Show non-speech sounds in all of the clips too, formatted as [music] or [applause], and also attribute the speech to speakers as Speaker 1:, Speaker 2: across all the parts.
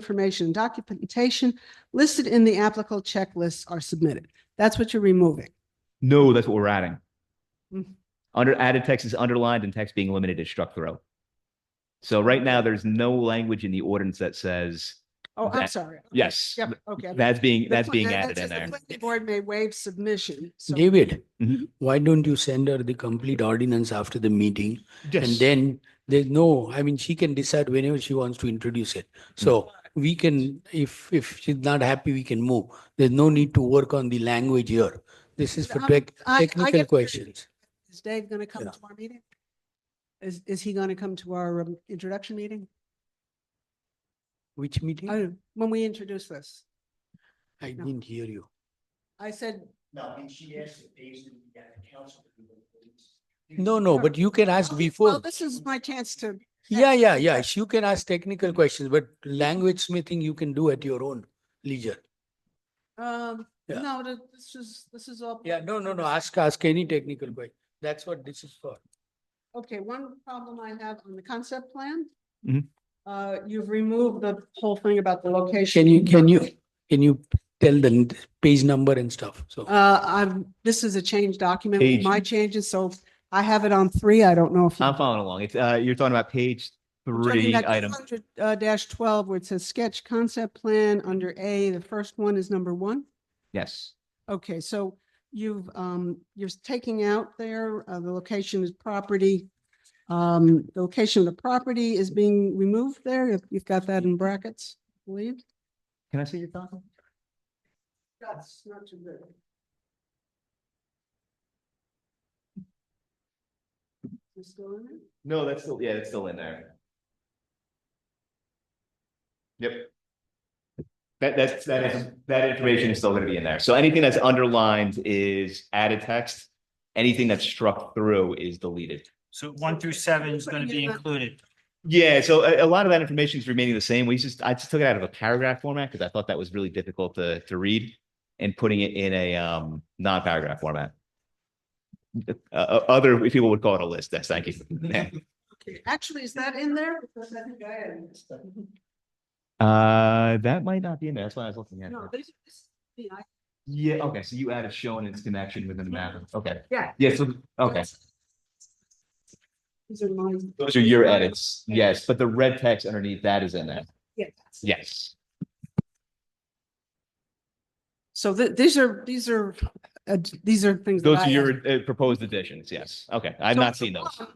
Speaker 1: information and documentation listed in the applicable checklists are submitted. That's what you're removing.
Speaker 2: No, that's what we're adding.
Speaker 1: Mhm.
Speaker 2: Under added text is underlined and text being limited is struck through. So right now, there's no language in the ordinance that says,
Speaker 1: Oh, I'm
Speaker 2: That-
Speaker 1: sorry. Okay.
Speaker 2: yes,
Speaker 1: Yep, okay.
Speaker 2: that's being,
Speaker 1: The
Speaker 2: that's
Speaker 1: pla-
Speaker 2: being
Speaker 1: that-
Speaker 2: added
Speaker 1: that
Speaker 2: in
Speaker 1: says
Speaker 2: there.
Speaker 1: The planning board may waive submission. so-
Speaker 3: David,
Speaker 1: Mm-hmm.
Speaker 2: Mhm.
Speaker 3: Mm-hmm. why don't you send her the complete ordinance after the meeting? And
Speaker 2: Yes.
Speaker 3: then there's no, I mean, she can decide whenever she wants to introduce it.
Speaker 1: Mm-hmm.
Speaker 3: So we can, if, if she's not happy, we can move. There's no need to work on the language here. This is for
Speaker 1: Um,
Speaker 3: tech,
Speaker 1: I- I get
Speaker 3: technical
Speaker 1: what you're
Speaker 3: questions.
Speaker 1: Is Dave going to come
Speaker 3: Yeah.
Speaker 1: to our meeting? Is, is he going to come to our um, introduction meeting?
Speaker 3: Which meeting?
Speaker 1: Oh, When we introduce this,
Speaker 3: I
Speaker 1: no.
Speaker 3: didn't hear you.
Speaker 1: I said,
Speaker 4: No, I mean, she asked if Dave's gonna be at the council. to do the police.
Speaker 3: No, no, but you can ask
Speaker 1: Oh, well,
Speaker 3: before.
Speaker 1: this is my chance to,
Speaker 3: Yeah, yeah, yeah. You can ask technical questions, but language smithing you can do at your own leisure.
Speaker 1: um,
Speaker 3: Yeah.
Speaker 1: no, th- this is, this is all.
Speaker 3: Yeah, no, no, no, ask, ask any technical question. That's what this is for.
Speaker 1: Okay, one problem I have on the concept plan.
Speaker 3: Mm-hmm.
Speaker 2: Mhm.
Speaker 1: Uh, you've removed the whole thing about the location.
Speaker 3: Can you, can you, can you tell the n- page number and stuff? So,
Speaker 1: Uh, I've, this is a change document, with
Speaker 2: Page.
Speaker 1: my changes, so I have it on three, I don't know if. you-
Speaker 2: I'm following along. It's, uh, you're talking about page
Speaker 1: Talking
Speaker 2: three,
Speaker 1: about
Speaker 2: item.
Speaker 1: 200, Uh, dash twelve, where it says sketch concept plan under A, the first one is number one.
Speaker 2: Yes.
Speaker 1: Okay, so you've, um, you're taking out there, uh, the location is property. Um, the location of the property is being removed there. You've- You've got that in brackets, I believe.
Speaker 2: Can I see your copy?
Speaker 1: That's not too good. You still in it?
Speaker 2: No, that's still, yeah, that's still in there. Yep. That, that's, that is, that information is still gonna be in there. So anything that's underlined is added text. Anything that's struck through is deleted.
Speaker 4: So one through seven is gonna be
Speaker 1: Putting it on-
Speaker 4: included.
Speaker 2: Yeah, so a, a lot of that information is remaining the same. We just, I just took it out of a paragraph format because I thought that was really difficult to, to read and putting it in a, um, non-paragraph format. Uh, uh, other people would call it a list. That's, thank [laughs] you.
Speaker 1: Okay, Actually, is that in there? Because I think I added this stuff.
Speaker 2: Uh, that might not be in there. That's why I was looking at it.
Speaker 1: No, this, this, yeah, I-
Speaker 2: Yeah, okay, so you added shown its connection within the map, okay.
Speaker 1: Yeah.
Speaker 2: Yeah, so, okay,
Speaker 1: These are mine.
Speaker 2: those are your edits, yes, but the red text underneath that is in there,
Speaker 1: Yeah. that's-
Speaker 2: yes.
Speaker 1: So th- these are, these are, uh, these are things. that
Speaker 2: Those
Speaker 1: I
Speaker 2: are
Speaker 1: added.
Speaker 2: your uh, proposed additions, yes, okay, I've
Speaker 1: So
Speaker 2: not
Speaker 1: it's
Speaker 2: seen
Speaker 1: a
Speaker 2: those,
Speaker 1: lot.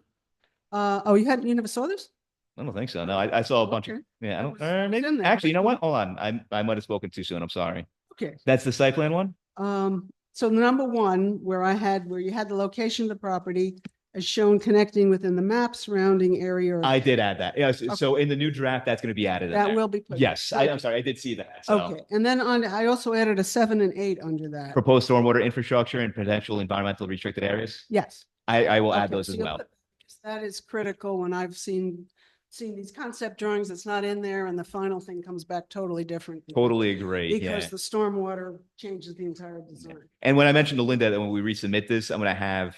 Speaker 1: Uh, oh, you hadn't, you never saw this?
Speaker 2: I don't think so, no, I, I saw Oh, a bunch of,
Speaker 1: Okay.
Speaker 2: yeah, I
Speaker 1: That
Speaker 2: don't,
Speaker 1: was-
Speaker 2: uh, maybe,
Speaker 1: in there.
Speaker 2: actually, you know what, hold on, I, I might have spoken too soon, I'm sorry.
Speaker 1: Okay,
Speaker 2: That's the site plan one?
Speaker 1: um, so the number one, where I had, where you had the location of the property as shown connecting within the map surrounding area. or-
Speaker 2: I did add that, yes, so in the new draft, that's gonna be added in
Speaker 1: That
Speaker 2: there.
Speaker 1: will be. put-
Speaker 2: Yes, I, I'm sorry, I did see that, so.
Speaker 1: Okay, and then on, I also added a seven and eight under that.
Speaker 2: Proposed stormwater infrastructure and potential environmental restricted areas,
Speaker 1: Yes.
Speaker 2: I, I will add
Speaker 1: Okay,
Speaker 2: those
Speaker 1: so
Speaker 2: as
Speaker 1: you'll
Speaker 2: well.
Speaker 1: put- because That is critical when I've seen, seen these concept drawings, it's not in there and the final thing comes back totally different.
Speaker 2: Totally agree, yeah.
Speaker 1: Because the stormwater changes the entire design.
Speaker 2: And when I mentioned to Linda that when we resubmit this, I'm gonna have.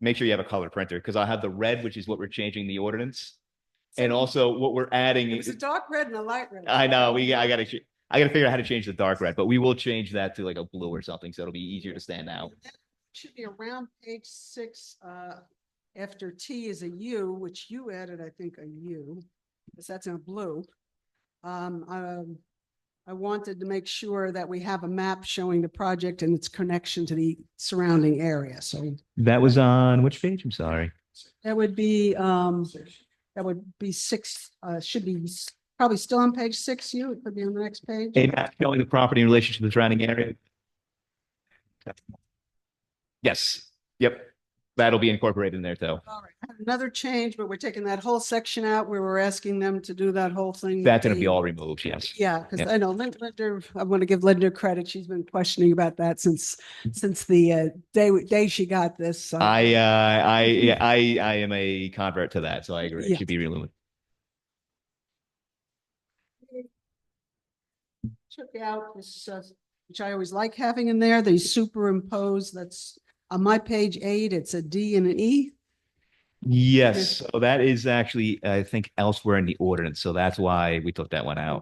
Speaker 2: Make sure you have a color printer, because I'll have the red, which is what we're changing the ordinance. And also what we're adding,
Speaker 1: It was a
Speaker 2: is-
Speaker 1: dark red and a light red.
Speaker 2: I know, we, I gotta, ch- I gotta figure out how to change the dark red, but we will change that to like a blue or something, so it'll be easier to stand out.
Speaker 1: Should be around page six, uh, after T is a U, which you added, I think, a U, because that's in blue. Um, um, I wanted to make sure that we have a map showing the project and its connection to the surrounding area, so
Speaker 2: That was on which page? I'm sorry.
Speaker 1: that would be, um,
Speaker 4: Six.
Speaker 1: that would be six, uh, should be s- probably still on page six, you, it could be on the next page.
Speaker 2: A map showing the property in relation to the surrounding area. Yes, yep, that'll be incorporated in there though.
Speaker 1: All right, I have Another change, but we're taking that whole section out where we're asking them to do that whole thing. with
Speaker 2: That's gonna be
Speaker 1: the-
Speaker 2: all removed, yes.
Speaker 1: Yeah, because
Speaker 2: Yeah.
Speaker 1: I know Lin- Linda, I want to give Linda credit. She's been questioning about that since, since the uh, day, day she got this. so-
Speaker 2: I, uh, I, yeah, I, I am a convert to that, so I agree.
Speaker 1: Yeah.
Speaker 2: It should be removed.
Speaker 1: Took out this, uh, which I always like having in there, they superimpose, that's on my page eight, it's a D and an E.
Speaker 2: Yes, so that is actually, I think elsewhere in the ordinance, so that's why we took that one out.